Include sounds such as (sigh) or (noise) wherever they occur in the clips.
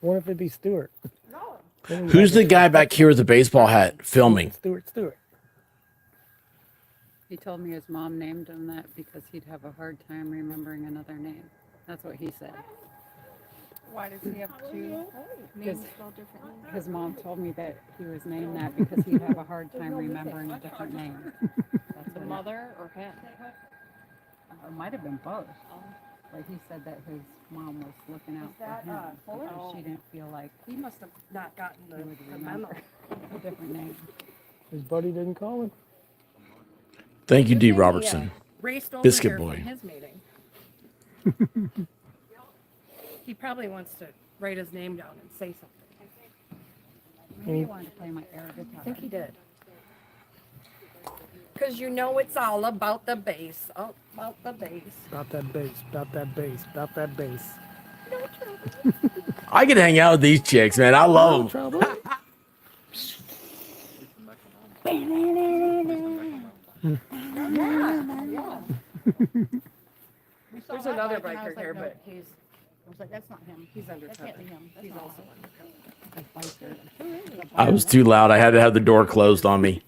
What if it be Stewart? Then we Who's got the guy back here with the baseball hat filming? Stewart Stewart. He told me his mom named him that because he'd have a hard time remembering another name. That's what he said. Why does he have two names spelled differently? His mom told me that he was named that because he'd have a hard time remembering a different name. That's The what it, Uh, mother or him? it might have been both. But he said that his mom was looking out that, for him. uh, Fuller? because She didn't feel like He must have not gotten he the, would the memo. remember a different name. His buddy didn't call him. Thank you, Good D. thing he, uh, Robertson. Raced over Biscuit here from boy. his (laughs) meeting. He probably wants to write his name down and say something. Maybe he wanted to play my air guitar. I think he did. Cause you know it's all about the bass, all about the bass. About that bass. About that bass. About that bass. I could hang out with these chicks, man. I No love them. trouble. We saw There's that another and I biker was like, here, "No, but- he's. I was like, that's not him. He's That undercover. can't be him. That's He's not also him." undercover. A biker. I was too loud. I had to have the door closed on me.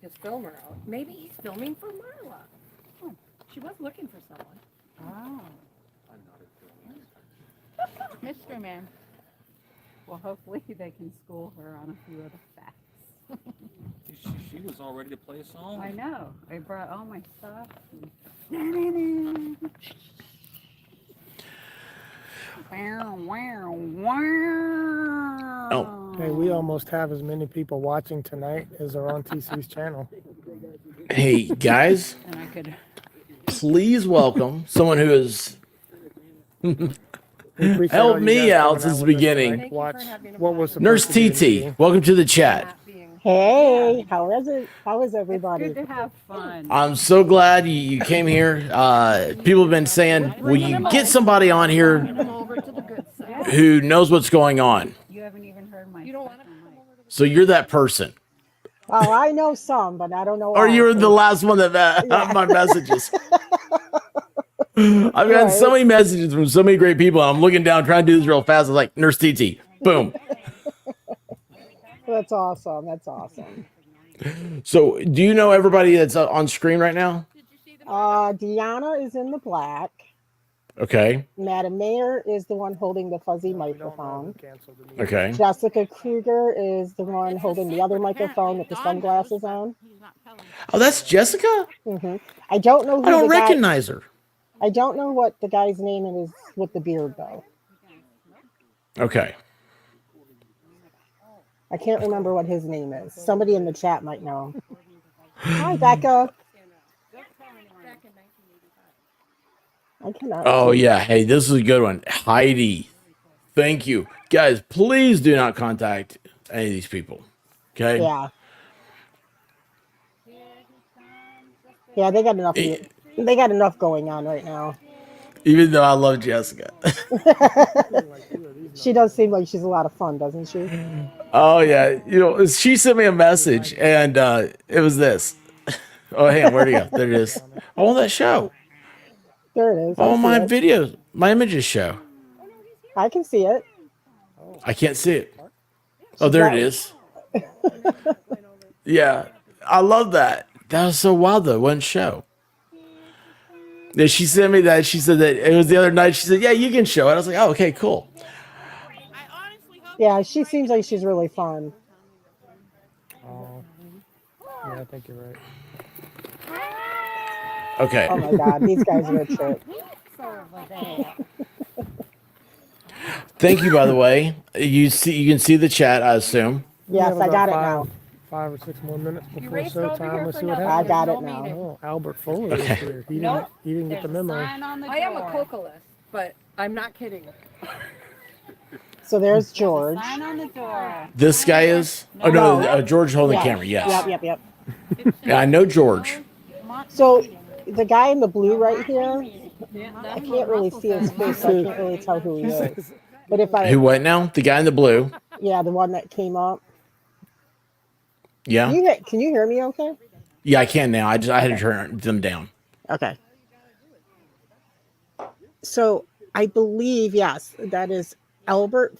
His filmer out. Maybe he's filming for Marla. She was looking for someone. Oh, Mystery man. well, hopefully they can school her on a few of the facts. She, she was all ready to play a song. I know. I brought all my stuff. and- (laughs) Wow, wow, wow. Hey, we almost have as many people watching tonight as are on TC's channel. Hey, guys, And I could, please welcome someone who is We appreciate Help all you me guys out coming since the with us beginning. tonight. Thank you for Watch having what us was on. Nurse supposed to be an TT. easy- Welcome to the chat. Not being. Hey, how is it? How is it's good everybody? to have fun. I'm so glad you, you came here. Uh, people have been saying, will you get somebody on here Bring (laughs) him over to the good side. Yeah, who knows what's going on? you haven't even heard my You don't stuff. want to I'm come like, over to So you're that person. Oh, I know some, but I don't know Or you all. were the last one that uh, Yeah. my messages. (laughs) I've gotten so Right. many messages from so many great people. and I'm looking down, trying to do this real fast. I'm like, Nurse TT, boom. That's awesome. That's awesome. So, do you know everybody that's uh, on screen right now? Uh, Deanna is in the black. Okay. Madam Mayor is the one holding the fuzzy No, we don't know who microphone. canceled the meeting. Okay. Jessica Kruger is the one holding the other microphone with the sunglasses on. Oh, that's Jessica. hmm I don't know I who don't the guy. recognize her. I don't know what the guy's name is with the beard though. Okay. I can't remember what his name is. Somebody in the chat might know. Hi, Becca. I cannot. Oh see. yeah. Hey, this is a good one, Heidi. Thank you, guys. Please do not contact any of these people. Okay. Yeah. Yeah, they got enough. mu- E- They got enough going on right now. Even though I love Jessica. (laughs) Like, who are these she does knuckleheads? seem like she's a lot of fun, doesn't she? Oh yeah, you know she sent me a Who's message, Heidi? and uh, it was this. Oh, hang on, where do you go? There it is. Oh, that show. There it is. I All see Oh, my it. videos, my images show. I can see it. Oh, I can't see it. Oh, She's there it got. is. Yeah, I love that. That was so wild though. One show. Yeah, she sent me that. She said that it was the other night. She said, "Yeah, you can show it." I was like, "Oh, okay, cool." Yeah, she seems like she's really fun. oh, yeah, I think you're right. Okay. Oh my God, these guys are a trip. Thank you, by the way. You see, you can see the chat, I assume. We have Yes, I about got it five, now. five or six more minutes You before raced over showtime. here Let's for see what nothing. I happens. There's got it no now. meeting. Oh, Albert Foley is Okay. here. He didn't. Nope. He didn't get There's the a memo. sign on the I am a door. cocalist, but I'm not kidding. So there's There's a George. sign on the door. This guy is. Oh no, No. uh, George holding the Yes. camera. Yep. Yes. Yep. Yep. Yeah, I know George. So the guy in the blue right here, I That's what can't really Russell see his said. face, Mom so I was Who- can't really worried. tell who he He is. says, But if I, Who what now? The guy in the blue. yeah, the one that came up. Can Yeah. you he- can you hear me? Okay. Yeah, I can now. I just I had to Okay. turn them down. Okay. So I believe yes, that is Albert